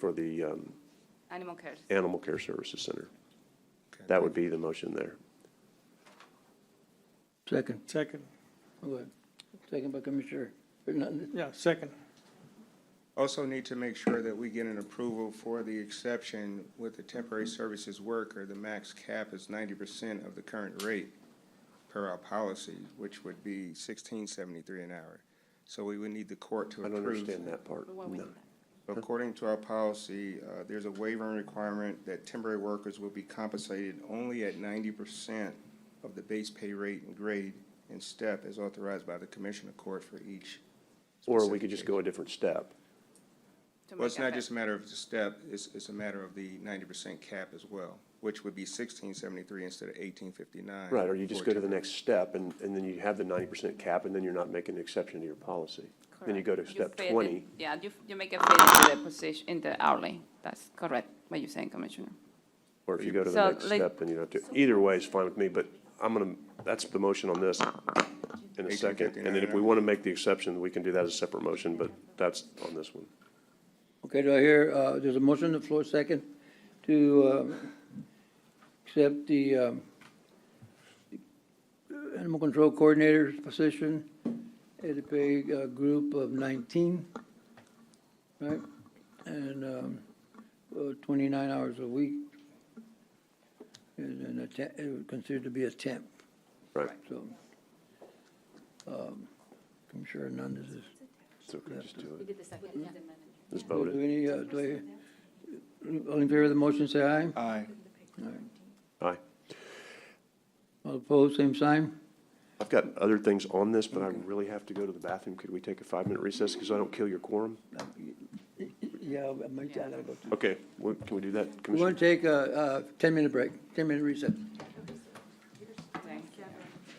for the um, Animal Care. Animal Care Services Center. That would be the motion there. Second, Second, go ahead. Second by Commissioner Hernandez. yeah, second. Also need to make sure that we get an approval for the exception with the temporary services worker. The max cap is ninety percent of the current rate per our policy, which would be sixteen seventy-three an hour. So we would need the court to I don't approve. understand that part. Why we No. need that? According to our policy, uh, there's a waiver and requirement that temporary workers will be compensated only at ninety percent of the base pay rate and grade and step as authorized by the commissioner court for each. Or we could specific just case. go a different step. to Well, it's make not that just a matter of the step, it's, it's a matter of the ninety percent cap as well, which would be sixteen seventy-three instead of eighteen fifty-nine. Right, or you just go to the next step and, and then you have the ninety percent cap and then you're not making an exception to your policy. Then you go to correct. step fit it- twenty. Yeah, you, you make a fit into the position, in the hourly. That's correct, what you're saying, Commissioner. Or if you go to So, the next like- step, then you don't have to. Either way is fine with me, but I'm gonna, that's the motion on this in a second. And then if we 1859. want to make the exception, we can do that as a separate motion, but that's on this one. Okay, do I hear, uh, there's a motion on the floor, second, to, um, accept the, um, animal control coordinator's position at a pay, uh, group of nineteen, right? And, um, uh, twenty-nine hours a week. And, and a temp, it was considered to be a temp, Right, so. Um, Commissioner Hernandez is so we can just do it. did the second amendment. Just vote Do it. any, uh, do I, all in favor of the motion, say aye. Aye. Aye. All opposed, same sign. I've got other things on this, but I really have to go to the bathroom. Could we take a five-minute recess because I don't kill your quorum? Yeah, I might, I gotta go. Okay, well, can we do that, We're gonna Commissioner? take a, a ten-minute break, ten-minute recess.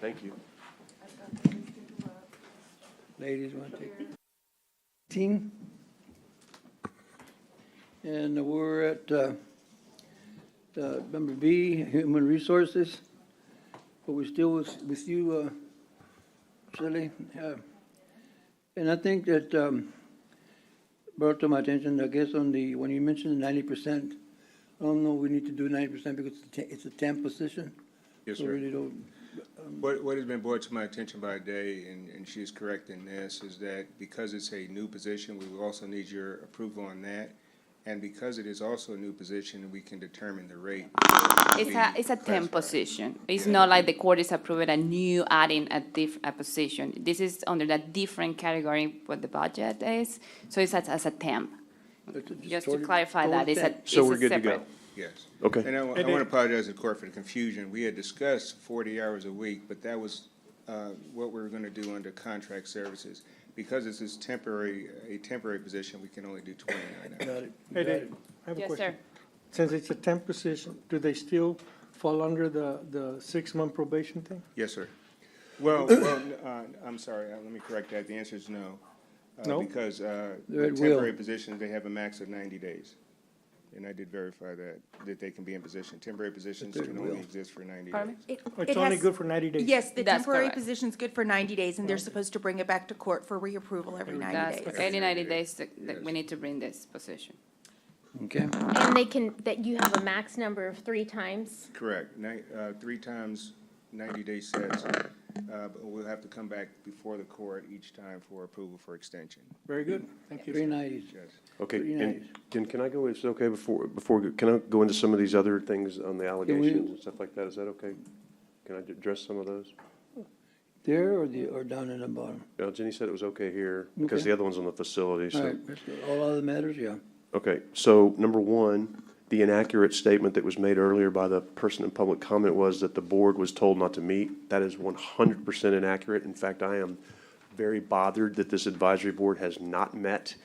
Thank you. Ladies, wanna take? Team? And we're at, uh, uh, number B, Human Resources. But we're still with, with you, uh, Shelley. Uh, And I think that, um, brought to my attention, I guess, on the, when you mentioned ninety percent, I don't know, we need to do ninety percent because it's a te- it's a temp position. Yes, So sir. really don't- What, what has been brought to my attention by Day, and, and she is correct in this, is that because it's a new position, we will also need your approval on that. And because it is also a new position, we can determine the rate. It's a, it's a temp Classified. position. It's not like the court is approving a new adding a diff, a position. This is under that different category what the budget is, so it's as, as a temp. it's a- Just to totally- clarify that, totally it's a, temp. it's So we're a good to go. separate. Yes. Okay. And I, wa- I And it- want to apologize to the court for the confusion. We had discussed forty hours a week, but that was, uh, what we were going to do under contract services. Because this is temporary, a temporary position, we can only do twenty-nine hours. Got it, Hey, got Dave, it. I have a Yes, question. sir. Since it's a temp position, do they still fall under the, the six-month probation thing? Yes, sir. Well, well, n- uh, I'm sorry, uh, let me correct that. The answer is no. Uh, No? Because uh, They're at with will. temporary positions, they have a max of 90 days. And I did verify that, that they can be in position. Temporary positions they're at can only will. exist for 90 days. Pardon me? Oh, It's only good for ninety days? Yes, the That's temporary correct. position's good for 90 days, and they're supposed to bring it back to court for reapproval every 90 That's, days. any ninety days that, that we need to bring this position. Okay. And they can, that you have a max number of three times. Correct. Ni- uh, Three times 90-day sets. Uh, But we'll have to come back before the court each time for approval for extension. Very good, thank you. Three nineties. Yes. Okay, Pretty and nice. can, can I go, is it okay before, before, we go- can I go into some of these other things on the allegations and stuff like that? Is that okay? Can I address some of those? There or the, or down in the bottom? Uh, Jenny said it was okay here, because Okay. the other one's on the facility, All so. right, let's go. all other matters, yeah. Okay, so number one, the inaccurate statement that was made earlier by the person in public comment was that the board was told not to meet. That is one hundred percent inaccurate. In fact, I am very bothered that this advisory board has not met.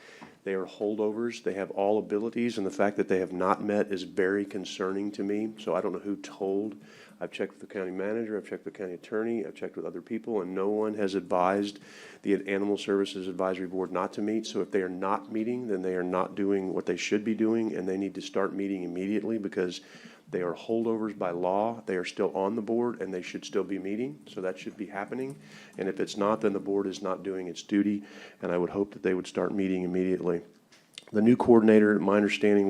They are holdovers, they have all abilities, and the fact that they have not met is very concerning to me. So I don't know who told. I've checked with the county manager, I've checked with the county attorney, I've checked with other people, and no one has advised the Animal Services Advisory Board not to meet. So if they are not meeting, then they are not doing what they should be doing, and they need to start meeting immediately because they are holdovers by law. They are still on the board, and they should still be meeting. So that should be happening. And if it's not, then the board is not doing its duty, and I would hope that they would start meeting immediately. The new coordinator, my understanding